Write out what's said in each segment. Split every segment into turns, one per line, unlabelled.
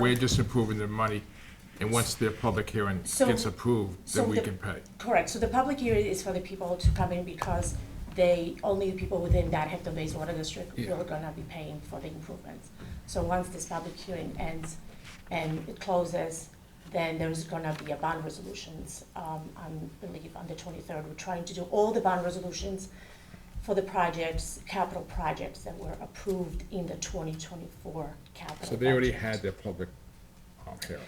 We're just approving the money, and once their public hearing
So-
gets approved,
so
then we
the-
can pay.
Correct, so the public hearing is for the people to come in because they, only the people within that Hampton Bays Water District
Yeah.
will gonna be paying for the improvements. So once this public hearing ends and it closes, then there's gonna be a bond resolutions, um, I believe on the twenty-third. We're trying to do all the bond resolutions for the projects, capital projects that were approved in the twenty twenty-four capital.
So they already
budget.
had their public um, hearing.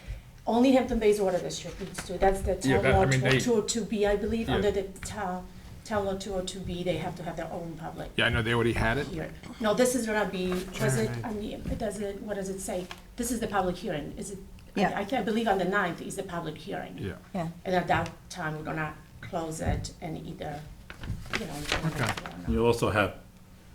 Only Hampton Bays Water District needs to, that's the
Yeah,
town
that- I
law
mean, they-
two oh two B, I believe,
Yeah.
under the town, town law two oh two B, they have to have their own public
Yeah, I know, they already had it.
hearing. No, this is gonna be, was it, I mean, it does it, what does it say? This is the public hearing, is it? I-
Yeah.
I, can't believe on the ninth is the public hearing.
Yeah.
Yeah,
And at that time, we're gonna close it and either, you know. we're gonna
Okay.
do it or not.
You'll also have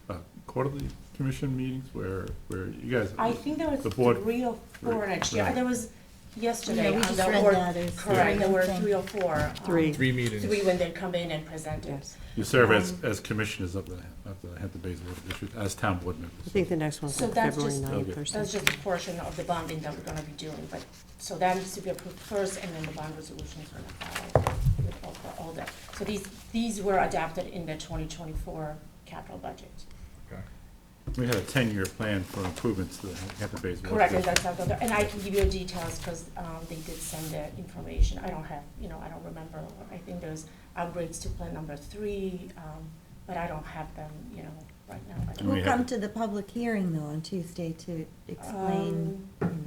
uh, quarterly commission meetings where, where you guys.
I think there was
The board-
three or four
Right.
next year,
Right.
there was yesterday.
Yeah, we
on
just
the
read
or-
that, there's
Correct, there were
three.
three or four. um,
Three.
Three meetings.
three when they come in and present it.
You serve as,
um,
as commissioners of the, of the Hampton Bays Water District, as town board
I
members.
think the next one's
So
on
that's
February
just-
ninth
Okay.
or
That's
something.
just a portion of the bonding that we're gonna be doing, but, so that needs to be approved first, and then the bond resolutions are gonna follow with all, for all that. So these, these were adapted in the twenty twenty-four capital budget.
Okay.
We had a ten-year plan for improvements to the Hampton Bays Water
Correct, and
District.
that's out there, and I can give you details, cause, um, they did send the information, I don't have, you know, I don't remember, I think there's upgrades to plan number three, um, but I don't have them, you know, right now. I don't-
we
we'll
have-
come to the public hearing though on Tuesday to explain,
Um,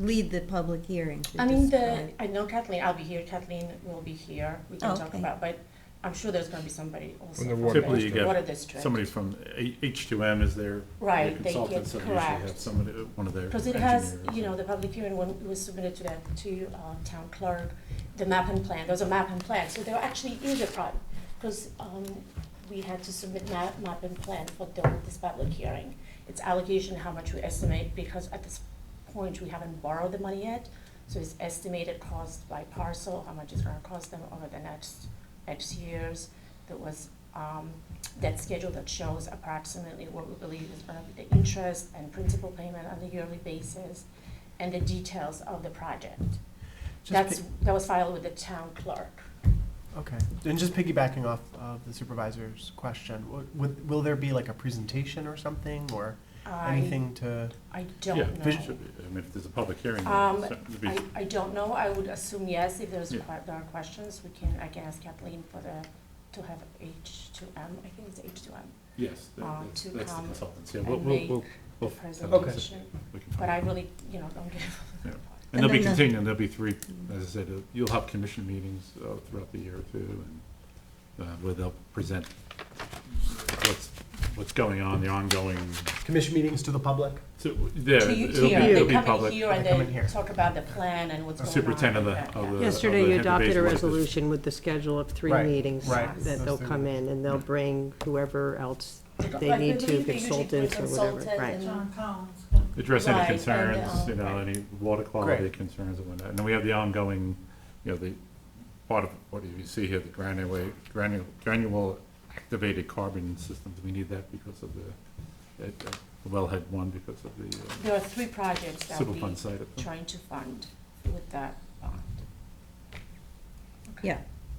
lead the public hearing to
I mean, the,
describe.
I know Kathleen, I'll be here, Kathleen will be here, we can
Oh,
talk
okay.
about, but I'm sure there's gonna be somebody also
From the
from
water
Typically,
the
you get
water district.
Somebody from H two M is their their
Right, they
consultant,
get,
so they usually have
correct.
somebody, uh, one of their
Because
engineers.
it has, you know, the public hearing when it was submitted to that, to, uh, town clerk, the map and plan, there's a map and plan, so there actually is a problem. Because, um, we had to submit map, map and plan for the, this public hearing. It's allocation, how much we estimate, because at this point, we haven't borrowed the money yet. So it's estimated cost by parcel, how much it's gonna cost them over the next X years. There was, um, that schedule that shows approximately what we believe is gonna be the interest and principal payment on a yearly basis, and the details of the project. That's, that was filed with the town clerk.
Okay, and just piggybacking off of the supervisor's question, w- would, will there be like a presentation or something, or
I,
anything to?
I
Yeah,
don't
there
know.
should be. I mean, if there's a public hearing,
Um,
then it's- it'd be-
I, I don't know, I would assume yes, if there's,
Yeah.
que- there are questions, we can, I can ask Kathleen for the, to have H two M, I think it's H two M,
yes, that-
uh,
that's
to
that's the
come
consultants, yeah, we'll,
and
we'll,
make
we'll.
the
we'll-
presentation,
we can find
but I
out.
really, you know, don't give.
Yeah.
And
And they'll be
then the-
continuing, there'll be three, as I said, uh, you'll have commission meetings uh, throughout the year too, and uh, where they'll present what's, what's going on, the ongoing,
Commission meetings to the public?
so, there,
To you
it'll be,
here,
it'll
they
be
come in
public.
here and
They come in
they
here.
talk about the plan and what's going on.
Superintendent of the-
Yeah,
of
yeah.
the-
Yesterday,
of
you
the
adopted
Hampton
a
Bays Water District.
resolution with the schedule of three
Right,
meetings.
right.
That they'll come in and they'll bring whoever else they
Like,
need to,
usually bring
consultants or whatever,
consultant
right.
and-
John Collins.
Address any
Right, and,
concerns, you know,
um,
any water quality
Great.
concerns and whatnot, and then we have the ongoing, you know, the, part of, what do you see here, the granular, granular, granular activated carbon systems, we need that because of the, at uh, wellhead one, because of the uh,
There are three projects that we
Superfund site at the-
trying to fund with that bond.
Yeah,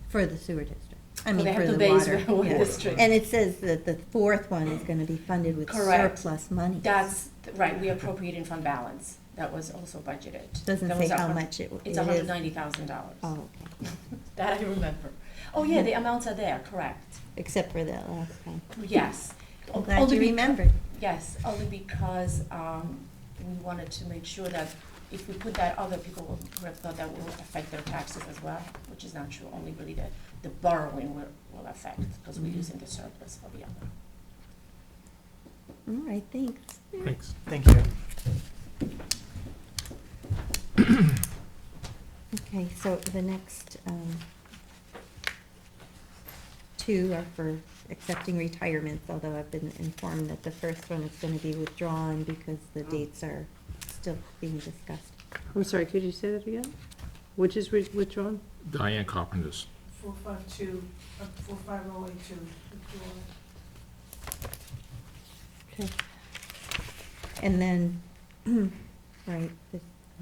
for the sewer district, I
So
mean,
they have
for
the
the
base
water.
railway
yeah.
district.
And it says that the fourth one is gonna be funded with
Correct.
surplus money.
That's, th- right, we appropriate in fund balance, that was also budgeted.
Doesn't
That
say
was a
how
hun-
much it w-
It's
it is.
hundred ninety thousand dollars,
Oh, okay,
that I remember. Oh, yeah, the amounts are there, correct,
except for that last one.
yes.
I'm glad
Only
you
beca-
remembered.
Yes, only because um, we wanted to make sure that if we put that, other people will would have thought that will affect their taxes as well, which is not true, only really the, the borrowing will, will affect, because
Mm-hmm.
we're using the surplus for the other.
All right, thanks.
Thanks.
Thank you.
Okay, so the next um, two are for accepting retirements, although I've been informed that the first one is going to be withdrawn because the dates are still being discussed.
I'm sorry, could you say that again? Which is with- withdrawn?
Diane Carpenter's.
Four five two, uh, four five oh eight two, withdrawal.
And then, right, this